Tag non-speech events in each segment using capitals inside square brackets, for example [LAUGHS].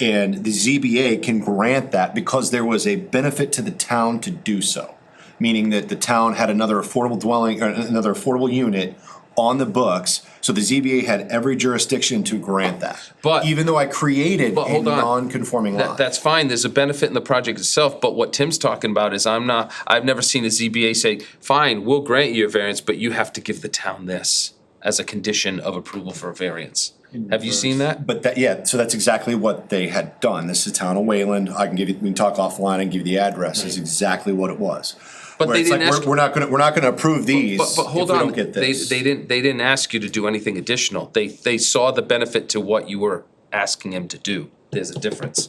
And the ZBA can grant that because there was a benefit to the town to do so. Meaning that the town had another affordable dwelling, or another affordable unit on the books, so the ZBA had every jurisdiction to grant that. But- Even though I created But a hold on. non-conforming That, lot. that's fine, there's a benefit in the project itself, but what Tim's talking about is I'm not, I've never seen a ZBA say, fine, we'll grant you a variance, but you have to give the town this as a condition of approval for a variance. Have you seen that? But that, yeah, so that's exactly what they had done. This is the town of Wayland. I can give you, we can talk offline and give you the address. It's exactly what it was. But Where they it's like, didn't we're- ask- We're not gonna, we're not gonna approve these But, if but we hold on, don't get they, this. they didn't, they didn't ask you to do anything additional. They, they saw the benefit to what you were asking him to do. There's a difference.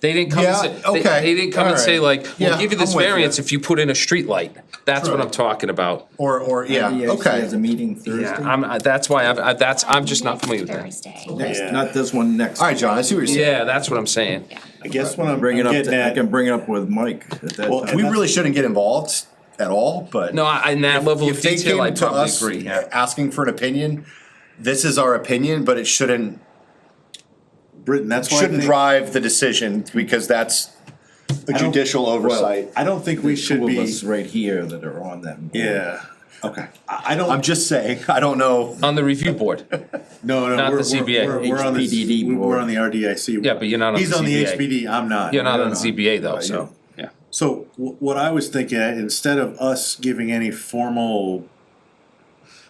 They didn't come and Yeah, say, they, okay, they didn't come and say alright. like, we'll Yeah, give you this I'm with you. variance if you put in a streetlight. That's what True. I'm talking about. Or, or, yeah, Yeah, She has okay. a meeting Yeah, Thursday. I'm, I- that's why I've, I, that's, I'm just not Next familiar with that. Thursday. Next, not this one, next. All right, John, I see what you're saying. Yeah, that's what I'm saying. I guess what I'm Bring it getting up, to- I at, can bring it up with Mike at that Well, time. We really shouldn't get involved at all, but. No, I, in that level of If they detail, I came to probably us [LAUGHS] agree, yeah. asking for an opinion, this is our opinion, but it shouldn't, Britain, that's why I shouldn't think- drive the decision because that's a I don't- judicial oversight. I don't think we There's should two of be, us Right here that are on that. board. yeah, Okay. I, I I'm don't, just saying, [LAUGHS] I don't know. On the review board. no, no, not the we're, we're, CBA. we're, we're on the, HPDD we- we're board. on the RDIC. Yeah, but you're not on He's the on the CBA. HPD, I'm not. You're not No, on no. ZBA though, Right, so, yeah. So wh- what I was thinking, uh, instead of us giving any formal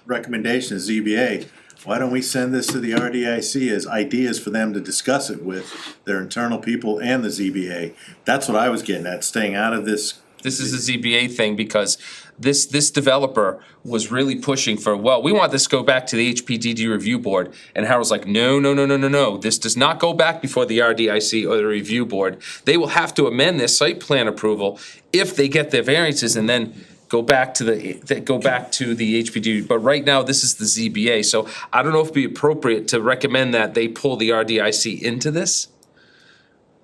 recommendations, ZBA, why don't we send this to the RDIC as ideas for them to discuss it with their internal people and the ZBA? That's what I was getting at, staying out of this. This is a ZBA thing because this, this developer was really pushing for, well, we want this to go back to the HPDD review board. And Harold's like, no, no, no, no, no, no, this does not go back before the RDIC or the review board. They will have to amend their site plan approval if they get their variances and then go back to the, that go back to the HPD. But right now, this is the ZBA, so I don't know if it'd be appropriate to recommend that they pull the RDIC into this.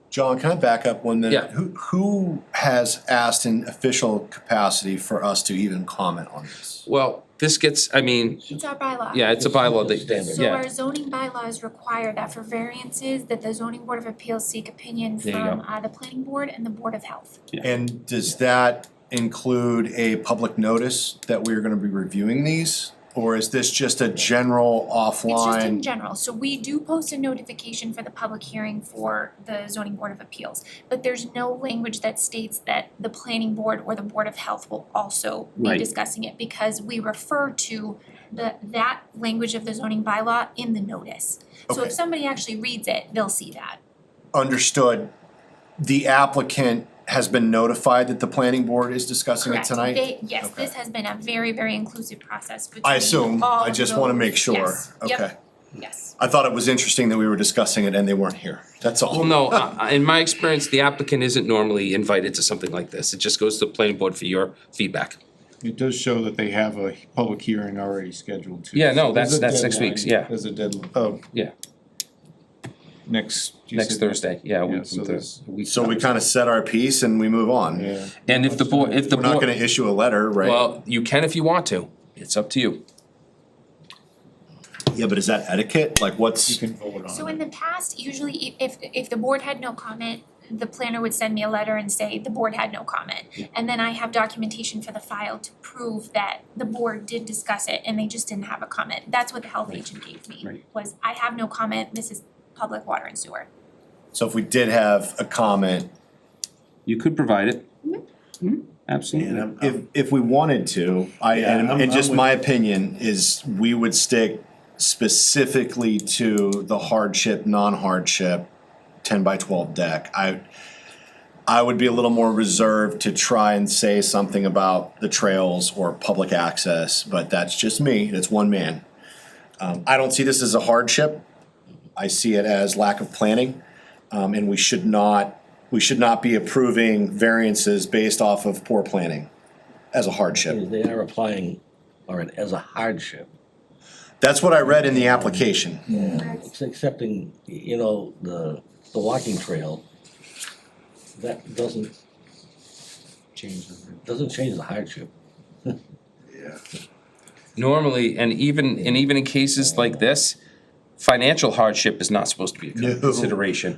John, can I back up one minute? Yeah. Who, who has asked in official capacity for us to even comment on this? Well, this gets, I mean, It's our bylaw. yeah, it's a bylaw that, that- So yeah. our zoning bylaws require that for variances, that the zoning board of appeals seek opinion There you from go. uh the planning board and the board of health. And does that include a public notice that we're gonna be reviewing these? Or is this just a general It's just in offline? general, so we do post a notification for the public hearing for the zoning board of appeals. But there's no language that states that the planning board or the board of health will also be Right. discussing it because we refer to the that language of the zoning bylaw in the notice. So Okay. if somebody actually reads it, they'll see that. Understood, the applicant has been notified that the planning board is discussing it Correct. tonight? They- yes, Okay. this has been a very, very inclusive process between all I assume, I just wanna of make those- sure, yes, yep, okay. yes. I thought it was interesting that we were discussing it and they weren't here, that's all. Well, no, uh, I- I- in my experience, the applicant isn't normally invited to something like this. It just goes to the planning board for your feedback. It does show that they have a public hearing already scheduled too. Yeah, no, So there's that's- a that's next deadline. week's, yeah. There's a deadline, oh, Yeah, next. you next said- Thursday, yeah, a Yeah, week so from there's- Thursday. So we kinda set our piece and we move on. Yeah. And if the board, if the We're not gonna board, issue a letter, right? well, you can if you want to. It's up to you. Yeah, but is that etiquette? Like You what's, can vote So on in it. the past, usually i- if if the board had no comment, the planner would send me a letter and say the board had no comment. And then I have documentation for the file to prove that the board did discuss it and they just didn't have a comment. That's what the health agent gave me, Right. was I have no comment, this is public water and sewer. so if we did have a comment, You could provide it. And Absolutely. I'm- I'm- if, if we wanted to, I, Um, Yeah, and, I'm- and just I'm with- my opinion is we would stick specifically to the hardship, non-hardship, ten by twelve deck. I, I would be a little more reserved to try and say something about the trails or public access, but that's just me, it's one man. Um, I don't see this as a hardship, I see it as lack of planning. Um, and we should not, we should not be approving variances based off of poor planning as a hardship. They are applying, or an- as a hardship, That's what I read in the application. It's accepting, you know, the, the walking trail. That doesn't. Change the. Doesn't change the hardship. Normally, and even, and even in cases like this, financial hardship is not supposed to be a No. consideration.